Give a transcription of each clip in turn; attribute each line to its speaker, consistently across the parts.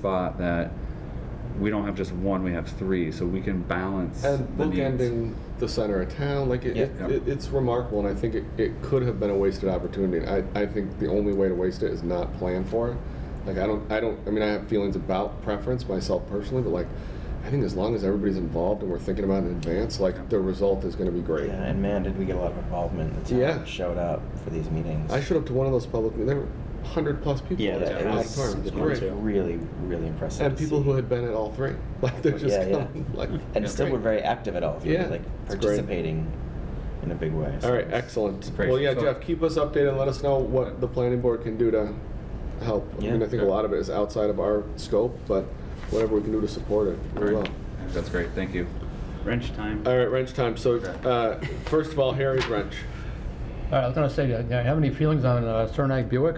Speaker 1: spot that we don't have just one, we have three, so we can balance
Speaker 2: And
Speaker 1: the needs.
Speaker 2: bookending the center of town, like it,
Speaker 3: Yeah.
Speaker 2: it, it- it's remarkable, and I think it, it could have been a wasted opportunity. I, I think the only way to waste it is not plan for it. Like I don't, I don't, I mean, I have feelings about preference myself personally, but like, I think as long as everybody's involved and we're thinking about it in advance, like the result is going to be great.
Speaker 3: Yeah, and man, did we get a lot of involvement. The town
Speaker 2: Yeah.
Speaker 3: showed up for these meetings.
Speaker 2: I showed up to one of those public meetings. There were hundred plus people.
Speaker 3: yeah,
Speaker 2: at
Speaker 3: that, it
Speaker 2: one
Speaker 3: was,
Speaker 2: time. It was
Speaker 3: it was
Speaker 2: great.
Speaker 3: really, really impressive.
Speaker 2: And
Speaker 3: to
Speaker 2: people
Speaker 3: see.
Speaker 2: who had been at all three, like they're just
Speaker 3: Yeah, yeah.
Speaker 2: coming, like.
Speaker 3: and
Speaker 1: Yeah.
Speaker 3: still were very active at all, three,
Speaker 2: Yeah,
Speaker 3: like
Speaker 2: it's great.
Speaker 3: participating in a big way. so
Speaker 2: All right,
Speaker 3: it's-
Speaker 2: excellent.
Speaker 1: Great.
Speaker 2: Well, yeah,
Speaker 1: So-
Speaker 2: Jeff, keep us updated and let us know what the planning board can do to help. I mean,
Speaker 3: Yeah.
Speaker 2: I think a lot of it is outside of our scope, but whatever we can do to support it, we will.
Speaker 1: That's great, thank you. Wrench time.
Speaker 2: All right, wrench time. So,
Speaker 1: Okay.
Speaker 2: uh, first of all, Harry's wrench.
Speaker 4: All right, I was gonna say, do you have any feelings on uh, Cernak Buick?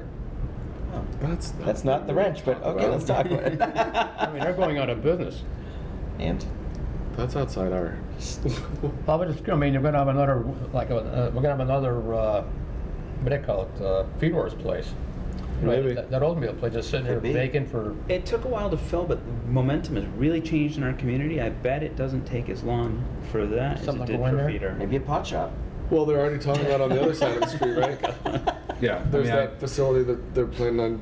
Speaker 2: That's,
Speaker 3: Oh, That's not the wrench, but okay, let's talk about
Speaker 4: I mean, they're
Speaker 3: it.
Speaker 4: going out of business.
Speaker 3: and
Speaker 2: That's outside our.
Speaker 4: Well, we're just, I mean, you're gonna have another, like, uh, we're gonna have another, uh, what do you call it, uh, Fedor's place. You know,
Speaker 2: Maybe.
Speaker 4: That that oatmeal place is sitting there
Speaker 3: Could be.
Speaker 4: vacant for,
Speaker 5: It took a while to fill, but momentum has really changed in our community. I bet it doesn't take as long for that
Speaker 4: Something
Speaker 5: as
Speaker 4: like
Speaker 5: it did
Speaker 4: a window?
Speaker 5: for Peter.
Speaker 3: maybe a pot shop.
Speaker 2: Well, they're already talking about on the other side of the street,
Speaker 3: Oh
Speaker 2: right?
Speaker 1: Yeah, I
Speaker 2: There's
Speaker 1: mean, I-
Speaker 2: that facility that they're planning on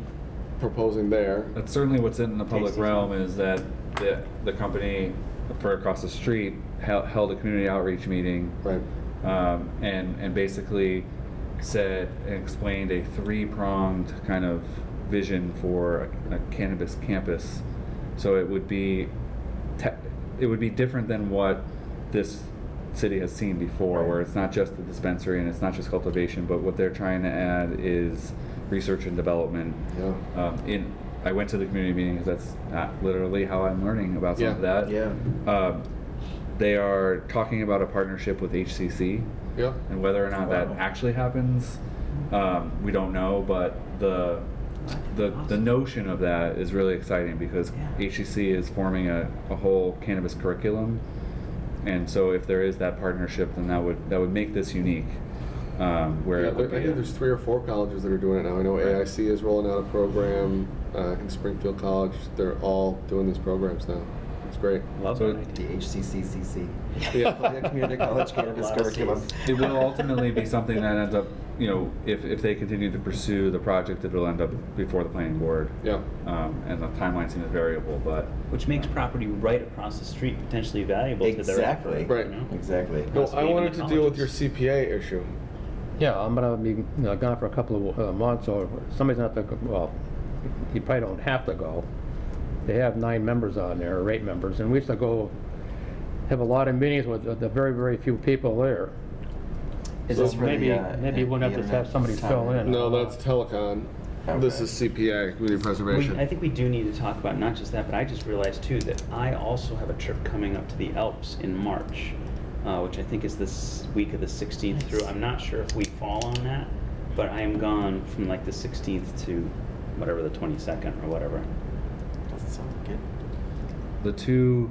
Speaker 2: proposing there.
Speaker 1: that's certainly what's in the public
Speaker 5: Tasty.
Speaker 1: realm is that the, the company for across the street held, held a community outreach meeting
Speaker 2: Right.
Speaker 1: um, and and basically said and explained a three-pronged kind of vision for a, a cannabis campus. So it would be te- it would be different than what this city has seen before, where it's not just the dispensary and it's not just cultivation, but what they're trying to add is research and development.
Speaker 2: Yeah.
Speaker 1: Um, in I went to the community meeting 'cause that's not literally how I'm learning about some of
Speaker 2: Yeah.
Speaker 1: that. Um, they are talking about a partnership with HCC,
Speaker 2: Yeah.
Speaker 1: and whether or not
Speaker 3: Wow.
Speaker 1: that actually happens, um, we don't know. But the the, the notion of that is really exciting because
Speaker 5: Yeah.
Speaker 1: HCC is forming a, a whole cannabis curriculum, and so if there is that partnership, then that would that would make this unique. Um, where
Speaker 2: Yeah,
Speaker 1: it would
Speaker 2: there, I
Speaker 1: be
Speaker 2: think
Speaker 1: a-
Speaker 2: there's three or four colleges that are doing it now. I know AIC is rolling out a program. Uh, I think Springfield College, they're all doing these programs now. It's great.
Speaker 5: Love
Speaker 1: So
Speaker 5: that
Speaker 1: it-
Speaker 5: idea.
Speaker 3: DHCCCC.
Speaker 2: Yeah.
Speaker 3: Yeah, Community College Cannabis
Speaker 5: Lot of
Speaker 3: Curriculum.
Speaker 1: it will ultimately be something that ends up, you know, if, if they continue to pursue the project, it'll end up before the planning board.
Speaker 2: Yeah.
Speaker 1: Um, and the timeline seems variable, but
Speaker 5: Which makes property right across the street potentially valuable to their
Speaker 3: Exactly.
Speaker 5: effort.
Speaker 2: Right.
Speaker 5: You know?
Speaker 3: Exactly.
Speaker 2: No,
Speaker 5: Possibly
Speaker 2: I
Speaker 5: even
Speaker 2: wanted
Speaker 5: the
Speaker 2: to deal with your
Speaker 5: colleges.
Speaker 2: CPA issue.
Speaker 4: yeah, I'm gonna be you know, gone for a couple of uh, months, or somebody's not, gonna go- well, you probably don't have to go. They have nine members on there, or eight members, and we used to go, have a lot of meetings with the- the very, very few people there.
Speaker 3: Is
Speaker 4: So
Speaker 3: this for
Speaker 4: maybe-
Speaker 3: the, uh,
Speaker 4: maybe we'll have to
Speaker 3: internet
Speaker 4: have somebody fill
Speaker 3: time?
Speaker 4: in.
Speaker 2: No, that's telecon. This
Speaker 3: Okay.
Speaker 2: is CPA, community
Speaker 5: We,
Speaker 2: preservation.
Speaker 5: I think we do need to talk about not just that, but I just realized too that I also have a trip coming up to the Alps in March, uh, which I think is this week of the 16th through. I'm not sure if we fall on that, but I am gone from like the 16th to whatever the 22nd or whatever.
Speaker 3: Doesn't sound good.
Speaker 1: the two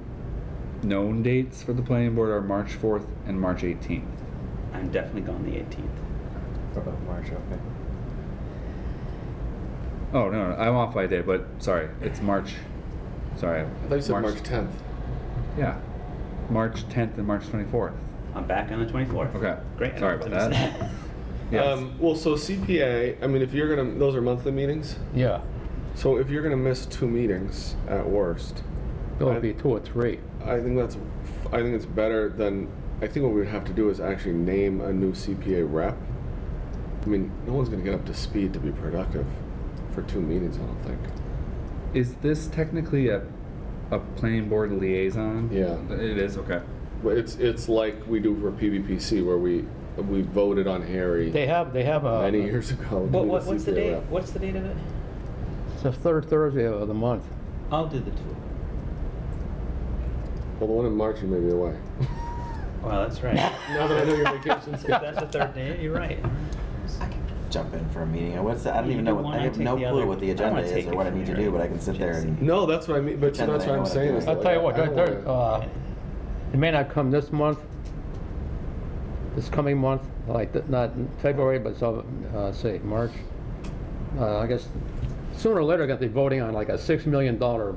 Speaker 1: known dates for the planning board are March 4th and March 18th.
Speaker 5: I'm definitely gone the 18th.
Speaker 3: What about March, okay.
Speaker 1: Oh, no, no, I'm off by a day, but sorry, it's March, sorry.
Speaker 2: I thought you said March 10th.
Speaker 1: Yeah, March 10th and March 24th.
Speaker 5: I'm back on the 24th.
Speaker 1: Okay,
Speaker 5: Great.
Speaker 1: sorry about
Speaker 5: I missed
Speaker 1: that. Yes.
Speaker 2: Um, well, so CPA, I mean, if you're going to, those are monthly meetings.
Speaker 4: Yeah,
Speaker 2: So if you're going to miss two meetings at worst,
Speaker 4: it'll be two or three.
Speaker 2: I think that's, I think it's better than, I think what we would have to do is actually name a new CPA rep. I mean, no one's going to get up to speed to be productive for two meetings, I don't think.
Speaker 1: Is this technically a, a planning board liaison?
Speaker 2: Yeah.
Speaker 1: It is, okay.
Speaker 2: But it's, it's like we do for PBPC where we, we voted on Harry
Speaker 4: They have, they have uh, a.
Speaker 2: many years ago. to
Speaker 5: What,
Speaker 2: be
Speaker 5: what, what's the
Speaker 2: CPA
Speaker 5: date?
Speaker 2: rep.
Speaker 5: What's the date of it?
Speaker 4: It's the third Thursday of the month.
Speaker 5: I'll do the two.
Speaker 2: Well, the one in March you may be away.
Speaker 5: Well, that's right.
Speaker 2: now that I know your vacation
Speaker 5: If that's the third day, you're right.
Speaker 3: I can jump in for a meeting. What's the, I don't
Speaker 5: You
Speaker 3: even
Speaker 5: do
Speaker 3: know. What,
Speaker 5: one,
Speaker 3: I
Speaker 5: I
Speaker 3: have
Speaker 5: take
Speaker 3: no
Speaker 5: the
Speaker 3: clue
Speaker 5: other.
Speaker 3: what the
Speaker 5: I wanna
Speaker 3: agenda is
Speaker 5: take
Speaker 3: or
Speaker 5: it
Speaker 3: what I
Speaker 5: from
Speaker 3: need to
Speaker 5: here.
Speaker 3: do, but I can sit there and.
Speaker 2: No, that's what I mean. But
Speaker 3: Pretend
Speaker 2: that's what
Speaker 3: that I
Speaker 2: I'm
Speaker 3: know what
Speaker 2: saying.
Speaker 3: I'm
Speaker 2: is
Speaker 4: I'll
Speaker 2: like,
Speaker 4: tell you
Speaker 2: I-
Speaker 4: what,
Speaker 2: I don't
Speaker 4: right there,
Speaker 2: wanna-
Speaker 4: uh, it may not come this month, this coming month, like, th- not in February, but so, uh, say, March. Uh, I guess sooner or later, gonna be voting on like a six million dollar